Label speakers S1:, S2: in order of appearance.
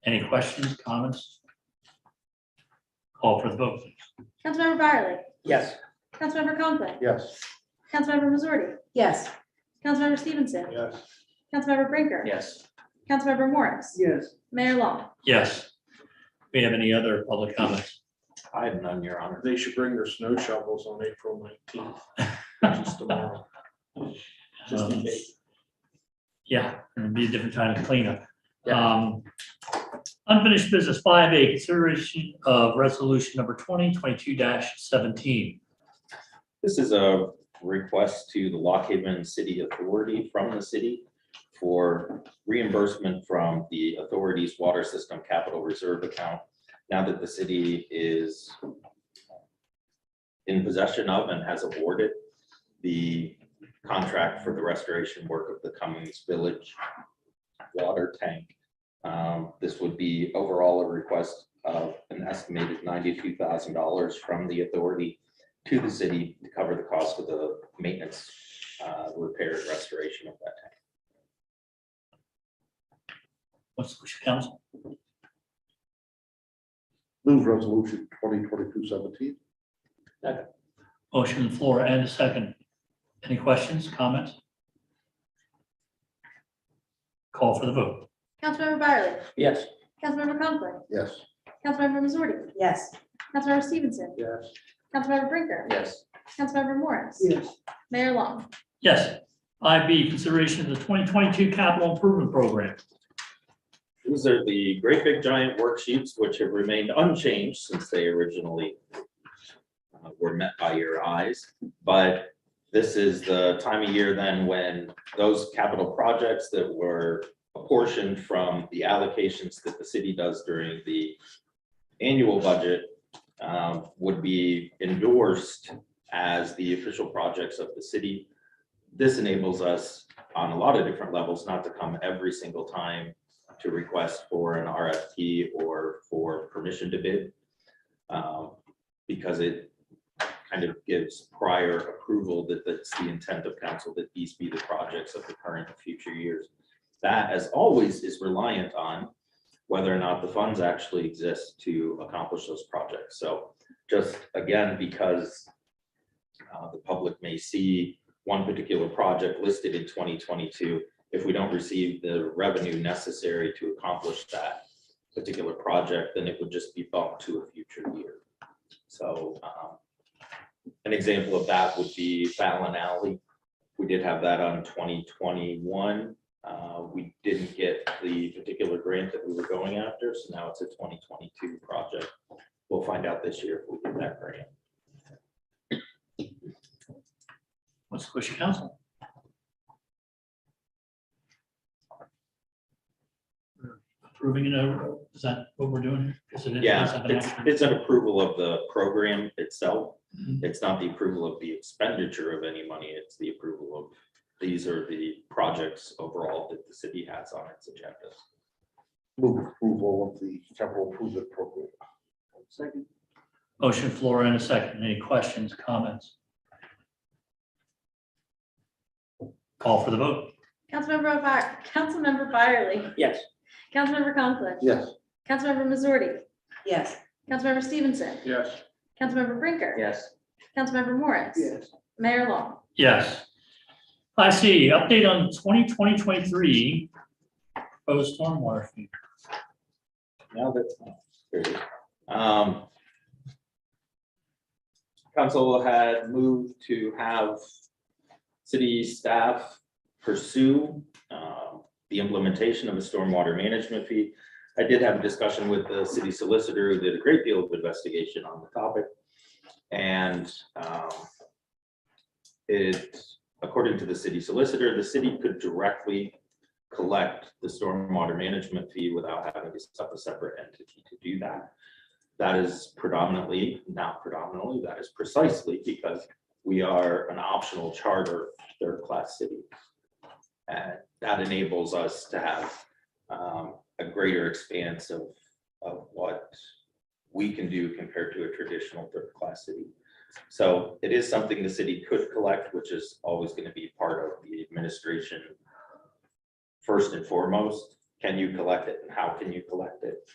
S1: Any questions, comments? Call for the vote.
S2: Councilmember Byerly.
S3: Yes.
S2: Councilmember Conklin.
S3: Yes.
S2: Councilmember Missouri.
S4: yes,
S2: Councilmember Stevenson.
S3: Yes.
S2: Councilmember Brinker.
S1: Yes.
S2: Councilmember Morris.
S3: Yes.
S2: Mayor Long.
S1: Yes. We have any other public comments?
S5: I have none, Your Honor.
S3: They should bring their snow shovels on April nineteenth, which is tomorrow. Just in
S1: Um,
S3: case.
S1: Yeah, it'd be a different kind of cleanup.
S3: Yeah.
S1: Um, Unfinished business five A, consideration of resolution number twenty twenty-two seventeen.
S5: This is a request to the Lock Haven City Authority from the city for reimbursement from the authority's water system capital reserve account. Now that the city is in possession of and has awarded the contract for the restoration work of the Cummings Village water tank. Um, This would be overall a request of an estimated ninety-two thousand dollars from the authority to the city to cover the cost of the maintenance, uh, repair and restoration of that tank.
S1: What's the wish of council?
S6: Move resolution twenty twenty-two seventeen.
S1: Motion on the floor and a second. Any questions, comments? Call for the vote.
S2: Councilmember Byerly.
S3: Yes.
S2: Councilmember Conklin.
S6: Yes.
S2: Councilmember Missouri.
S4: yes,
S2: Councilmember Stevenson.
S3: Yes.
S2: Councilmember Brinker.
S5: Yes.
S2: Councilmember Morris.
S3: Yes.
S2: Mayor Long.
S1: Yes. Five B, consideration of the twenty twenty-two capital improvement program.
S5: These are the great big giant worksheets which have remained unchanged since they originally uh, were met by your eyes, but this is the time of year then when those capital projects that were apportioned from the allocations that the city does during the annual budget um, would be endorsed as the official projects of the city. This enables us on a lot of different levels not to come every single time to request for an RFP or for permission to bid. um, Because it kind of gives prior approval that that's the intent of council, that these be the projects of the current and future years. That, as always, is reliant on whether or not the funds actually exist to accomplish those projects. So just again, because uh, the public may see one particular project listed in twenty twenty-two if we don't receive the revenue necessary to accomplish that particular project, then it would just be bumped to a future year. So um, an example of that would be Fallon Alley. We did have that on twenty twenty-one. Uh, We didn't get the particular grant that we were going after, so now it's a twenty twenty-two project. We'll find out this year if we get that grant.
S1: What's the wish of council? Approving it over, is that what we're doing? here? Is it- is
S5: Yeah,
S1: that an
S5: it's,
S1: action?
S5: it's an approval of the program itself.
S1: Mhm.
S5: It's not the approval of the expenditure of any money. It's the approval of, these are the projects overall that the city has on its agenda.
S6: Move approval of the capital improvement program.
S3: Second.
S1: Motion floor and a second. Any questions, comments? Call for the vote.
S2: Councilmember By, Councilmember Byerly.
S3: Yes.
S2: Councilmember Conklin.
S6: Yes.
S2: Councilmember Missouri.
S4: yes,
S2: Councilmember Stevenson.
S3: Yes.
S2: Councilmember Brinker.
S3: Yes.
S2: Councilmember Morris.
S3: Yes.
S2: Mayor Long.
S1: Yes. I see. Update on 2020 23 proposed stormwater fee.
S5: Now that's. there it is. Um, Council had moved to have city staff pursue um, the implementation of a stormwater management fee. I did have a discussion with the city solicitor, who did a great deal of investigation on the topic. And um, it, according to the city solicitor, the city could directly collect the stormwater management fee without having to set up a separate entity to do that. That is predominantly, not predominantly, that is precisely because we are an optional charter third-class city. And that enables us to have um, a greater expanse of, of what we can do compared to a traditional third-class city. So it is something the city could collect, which is always going to be part of the administration first and foremost, Can you collect it and how can you collect it?